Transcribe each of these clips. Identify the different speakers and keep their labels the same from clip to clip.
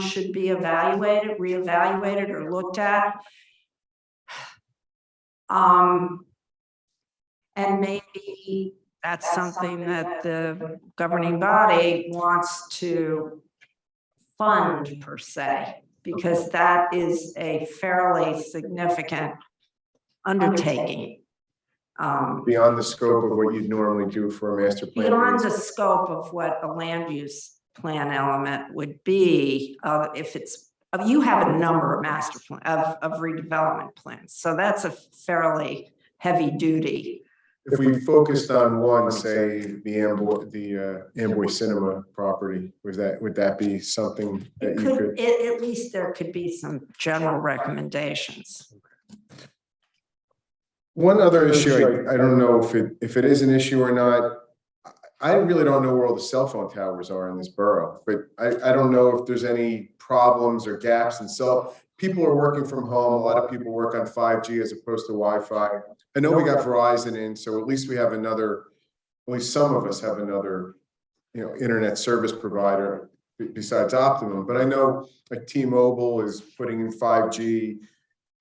Speaker 1: should be evaluated, reevaluated or looked at. Um. And maybe
Speaker 2: That's
Speaker 1: that's
Speaker 2: something that the
Speaker 1: governing body wants to fund per se, because that is a fairly significant undertaking. Um,
Speaker 3: beyond the scope of what you'd normally do for a master plan.
Speaker 1: beyond the scope of what a land use plan element would be, uh, if it's, uh, you have a number of master plan, of, of redevelopment plans, so that's a fairly heavy duty.
Speaker 3: If we focused on one, say, the Amboy, the uh, Amboy Cinema property, was that, would that be something that
Speaker 1: It
Speaker 3: you could?
Speaker 1: could, at, at least there could be some general recommendations.
Speaker 3: One other issue, I, I don't know if it, if it is an issue or not. I- I really don't know where all the cell phone towers are in this borough, but I, I don't know if there's any problems or gaps in cell. People are working from home. A lot of people work on five G as opposed to Wi-Fi. I know we got Verizon in, so at least we have another, at least some of us have another, you know, internet service provider be- besides Optimum. But I know like T-Mobile is putting in five G,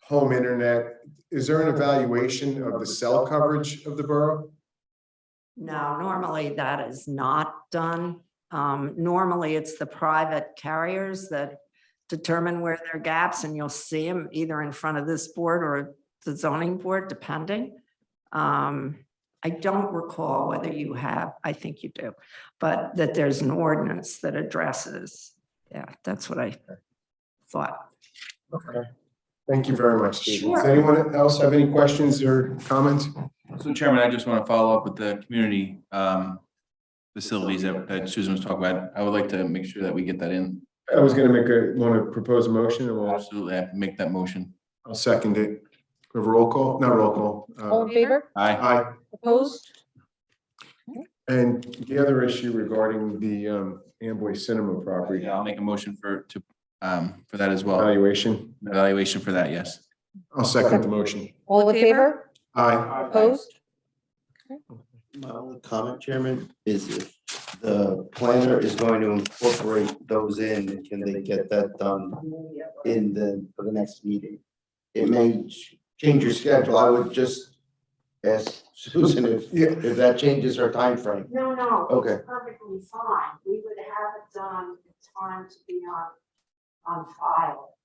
Speaker 3: home internet is there an evaluation of the cell coverage of the borough?
Speaker 1: No, normally that is not done. Um, normally it's the private carriers that determine where there are gaps and you'll see them either in front of this board or the zoning board, depending. Um, I don't recall whether you have, I think you do, but that there's an ordinance that addresses. Yeah, that's what I thought.
Speaker 3: Okay. Thank you very much. Steve. Does
Speaker 1: Sure.
Speaker 3: anyone else have any questions or comments?
Speaker 4: So Chairman, I just want to follow up with the community um, facilities that that Susan was talking about. I would like to make sure that we get that in.
Speaker 3: I was gonna make a, want to propose a motion and I'll,
Speaker 4: Absolutely, I make that motion.
Speaker 3: I'll second it. We have a roll call, not roll call.
Speaker 5: All
Speaker 3: uh,
Speaker 5: in favor?
Speaker 4: Aye.
Speaker 3: Aye.
Speaker 5: Opposed?
Speaker 3: And the other issue regarding the um, Amboy Cinema property
Speaker 4: Yeah, I'll make a motion for to um, for that as well.
Speaker 3: evaluation,
Speaker 4: Evaluation for that, yes.
Speaker 3: I'll second the motion.
Speaker 5: All in favor?
Speaker 3: Aye.
Speaker 5: Opposed?
Speaker 6: My only comment, Chairman, is if the planner is going to incorporate those in, can they get that done in the, for the next meeting? It may ch- change your schedule. I would just ask Susan if,
Speaker 3: Yeah,
Speaker 6: if that changes her timeframe.
Speaker 1: No, no.
Speaker 6: Okay.
Speaker 1: perfectly fine. We would have it done in time to be on, on file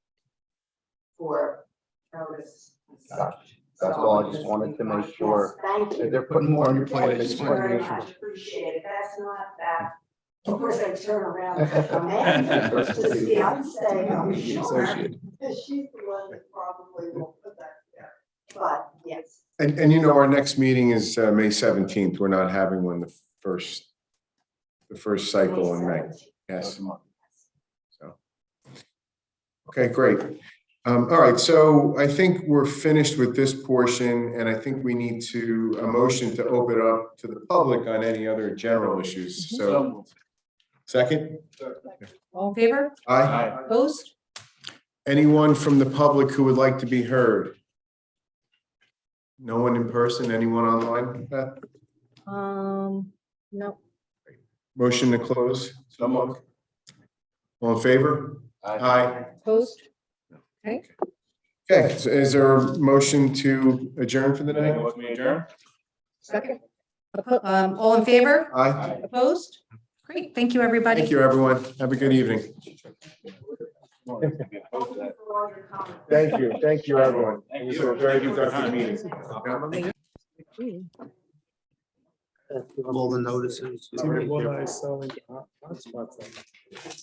Speaker 1: for notice. and such.
Speaker 6: That's all. I just wanted to make sure.
Speaker 1: Thank
Speaker 6: If
Speaker 1: you.
Speaker 6: They're putting more on your plate. I
Speaker 1: Thank
Speaker 6: just
Speaker 1: you
Speaker 6: wanted to
Speaker 1: very
Speaker 6: make sure.
Speaker 1: much. Appreciate it. That's not that. Of course, I turn around and I'm angry to see, I'm saying, I'm sure. Because she's the one that probably will put that there. But yes,
Speaker 3: And, and you know, our next meeting is uh, May seventeenth. We're not having one the first, the first cycle in May. Yes. So. Okay, great. Um, all right, so I think we're finished with this portion, and I think we need to, a motion to open up to the public on any other general issues.
Speaker 6: Um,
Speaker 3: So, second?
Speaker 5: Mhm. All in favor?
Speaker 3: Aye.
Speaker 5: Opposed?
Speaker 3: Anyone from the public who would like to be heard? No one in person, anyone online? Beth?
Speaker 5: Um, no.
Speaker 3: Motion to close? Someone? All in favor? Aye.
Speaker 5: Opposed?
Speaker 3: Okay, so is there a motion to adjourn for the night?
Speaker 5: Second. Oppo- Um, all in favor?
Speaker 3: Aye.
Speaker 5: Opposed? Great. Thank you, everybody.
Speaker 3: Thank you, everyone. Have a good evening.
Speaker 1: thank you for all your comments.
Speaker 3: Thank you. Thank you, everyone. It
Speaker 4: Thank
Speaker 3: was
Speaker 4: you.
Speaker 3: a very productive meeting.
Speaker 6: All the notices.